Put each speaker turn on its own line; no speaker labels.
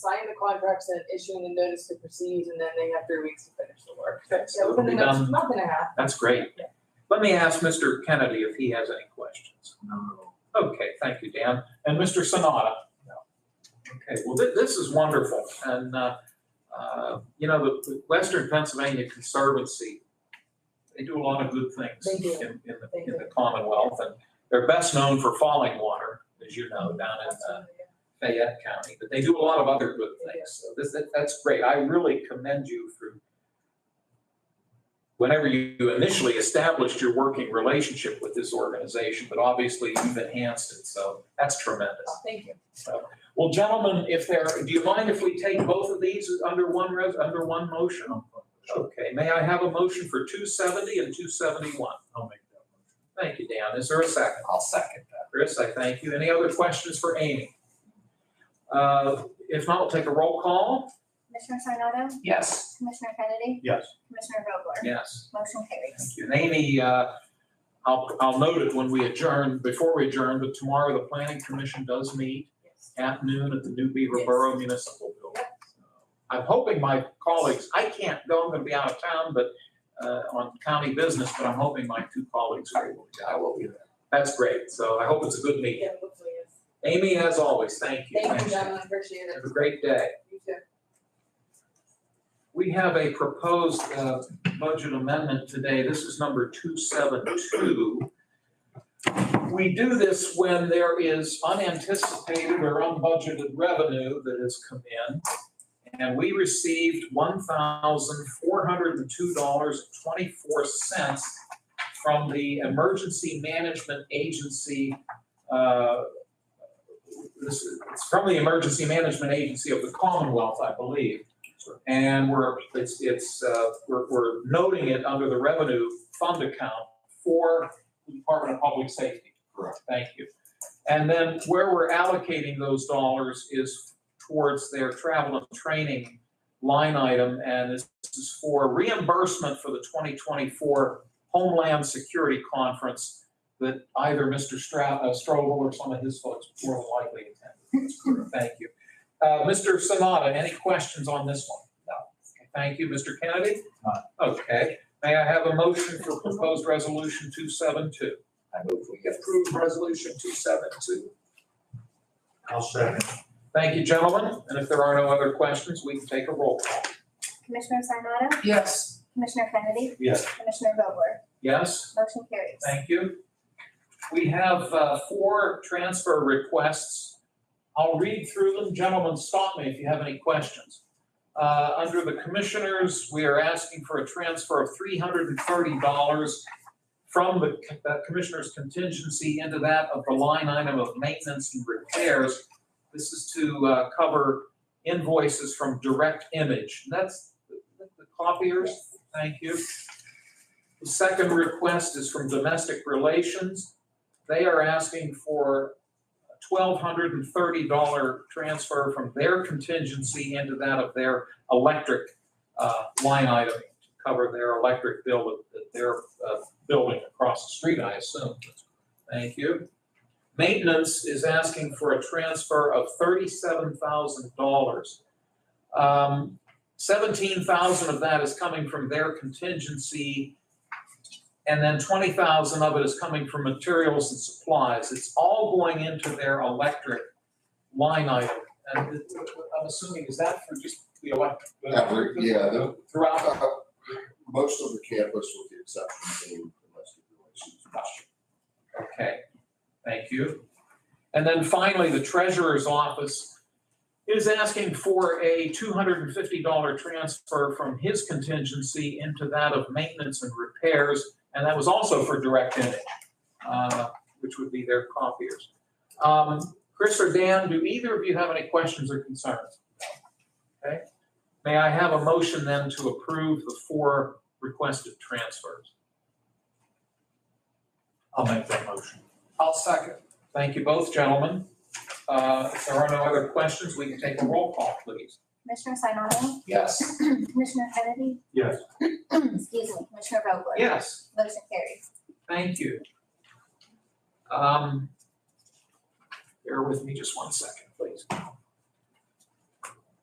sign the contract, said issuing the notice to proceed, and then they have three weeks to finish the work.
Okay,
So within the
we'll be
next
done.
month and a half,
That's great. Let me ask Mr. Kennedy if he has any questions.
No.
Okay, thank you, Dan. And Mr. Sonata? Okay, well, thi- this is wonderful. And, uh, uh, you know, the- the Western Pennsylvania Conservancy, they do a lot of good things
They do.
in, in
They
the, in
do.
the Commonwealth. And they're best known for falling water, as you know, down in
that's,
uh,
uh,
Fayette County, but they do a lot of other good
They do.
things. So this, that- that's great. I really commend you for whenever you initially established your working relationship with this organization, but obviously you've enhanced it. So that's tremendous.
thank you.
Well, gentlemen, if there, do you mind if we take both of these under one res, under one motion? Okay, may I have a motion for two seventy and two seventy-one?
I'll make that motion.
Thank you, Dan. Is there a second? I'll second that. Chris, I thank you. Any other questions for Amy? Uh, If not, we'll take a roll call.
Commissioner Sarnado,
Yes.
Commissioner Kennedy,
Yes.
Commissioner Vogler,
Yes.
motion carries.
Thank you. And Amy, uh, I'll, I'll note it when we adjourn, before we adjourn, but tomorrow the planning commission does meet
Yes.
at noon at the New Beaver
Yes.
Borough Municipal Building. I'm hoping my colleagues, I can't go, I'm gonna be out of town, but, uh, on county business, but I'm hoping my two colleagues will. I will be there. That's great. So I hope it's a good meeting.
Yeah, hopefully, yes.
Amy, as always, thank you.
Thank you,
Thanks.
gentlemen, appreciate it.
Have a great day.
You too.
We have a proposed uh, budget amendment today. This is number 272. We do this when there is unanticipated or unbudgeted revenue that has come in. And we received $1,402.24 from the Emergency Management Agency. uh, This is it's from the Emergency Management Agency of the Commonwealth, I believe. And we're, it's, it's, uh, we're, we're noting it under the revenue fund account for the Department of Public Safety.
Correct.
Thank you. And then where we're allocating those dollars is towards their travel and training line item. And this is for reimbursement for the twenty twenty-four Homeland Security Conference that either Mr. Stroud, uh, Strobel or some of his folks more than likely attended. Thank you. Uh, Mr. Sanada, any questions on this one? No. Thank you, Mr. Kennedy?
None.
Okay, may I have a motion for proposed resolution two seven two? I move we approve resolution two seven two.
I'll second.
Thank you, gentlemen, and if there are no other questions, we can take a roll call.
Commissioner Sarnado,
Yes.
Commissioner Kennedy,
Yes.
Commissioner Vogler,
Yes?
motion carries.
Thank you. We have uh, four transfer requests. I'll read through them. Gentlemen, stop me if you have any questions. Uh, Under the Commissioners, we are asking for a transfer of $330 from the c- uh, Commissioner's contingency into that of the line item of maintenance and repairs. This is to uh, cover invoices from Direct Image. That's the the copiers. Thank you. The second request is from Domestic Relations. They are asking for a twelve hundred and thirty dollar transfer from their contingency into that of their electric uh, line item to cover their electric bill that- that they're uh, building across the street, I assume. Thank you. Maintenance is asking for a transfer of thirty-seven thousand dollars. Um, Seventeen thousand of that is coming from their contingency and then twenty thousand of it is coming from materials and supplies. It's all going into their electric line item. And it- I'm assuming, is that for just the electric?
Every- yeah, the-
Throughout,
Uh, Most of the campus, with the exception of domestic relations.
okay, thank you. And then finally, the treasurer's office is asking for a two hundred and fifty dollar transfer from his contingency into that of maintenance and repairs. And that was also for direct image, uh, which would be their copiers. Um, Chris or Dan, do either of you have any questions or concerns? Okay, may I have a motion then to approve the four requested transfers?
I'll make that motion.
I'll second. Thank you both, gentlemen. Uh, if there are no other questions, we can take a roll call, please.
Commissioner Sarnado,
Yes.
Commissioner Kennedy,
Yes.
excuse me, Commissioner Vogler,
Yes,
motion carries.
thank you. Um, bear with me just one second, please.